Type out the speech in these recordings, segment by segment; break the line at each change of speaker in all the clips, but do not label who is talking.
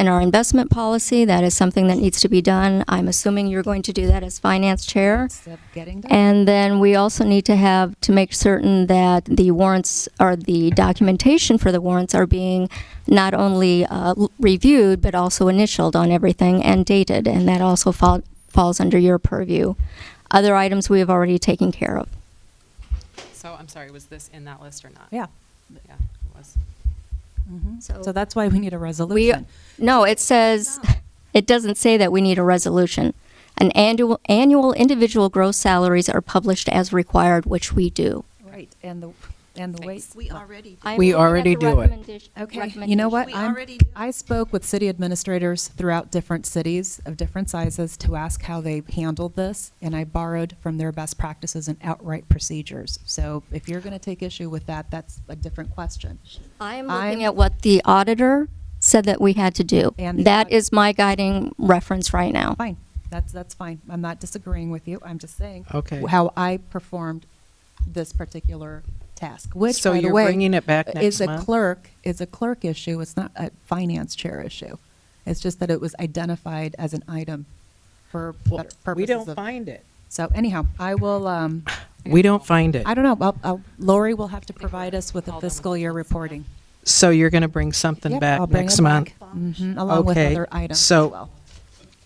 in our investment policy. That is something that needs to be done. I'm assuming you're going to do that as finance chair.
Step getting done.
And then we also need to have to make certain that the warrants or the documentation for the warrants are being not only uh, l- reviewed but also initialed on everything and dated, and that also fall, falls under your purview. Other items we have already taken care of.
So I'm sorry, was this in that list or not?
Yeah.
Yeah, it was.
Mhm.
So-
So that's why we need a
We
resolution.
no, it says it doesn't say that we need a resolution. An annual annual individual gross salaries are published as required, which we do.
Right, and the, and the weight.
Thanks.
We already, do.
I'm
We
looking at
already
the
do it.
recommendation-
Okay, you know what?
We
I'm-
already do.
I spoke with city administrators throughout different cities of different sizes to ask how they handled this, and I borrowed from their best practices and outright procedures. So if you're going to take issue with that, that's a different question.
I'm
I'm-
looking at what the auditor said that we had to do.
And the
That
aud-
is my guiding reference right now.
Fine, that's, that's fine. I'm not disagreeing with you. I'm just saying.
Okay.
How I performed this particular task, which,
So
by the
you're
way,
bringing it back
Is
next
a
month?
clerk, is a clerk issue. It's not a finance chair issue. It's just that it was identified as an item for
Well,
better purposes
We don't
of-
find it.
So anyhow, I will, um,
We don't find it.
I don't know, I'll, I'll, Lori will have to provide us with a
All done with
fiscal year
the books,
reporting.
So you're going to bring something
Yep, I'll
back
bring
next
it
month?
back. Mhm, Along with
Okay,
other items as
so-
well.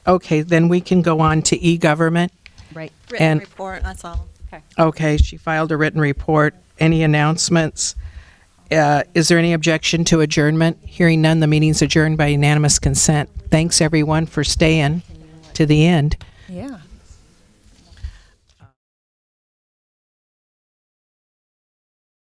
Okay, then we can go on to e-government.
Right.
Written
and-
report, that's all.
Okay.
Okay, she filed a written report. Any announcements? Uh, Is there any objection to adjournment? Hearing none, the meeting's adjourned by unanimous consent. Thanks, everyone, for staying to the end.
Yeah.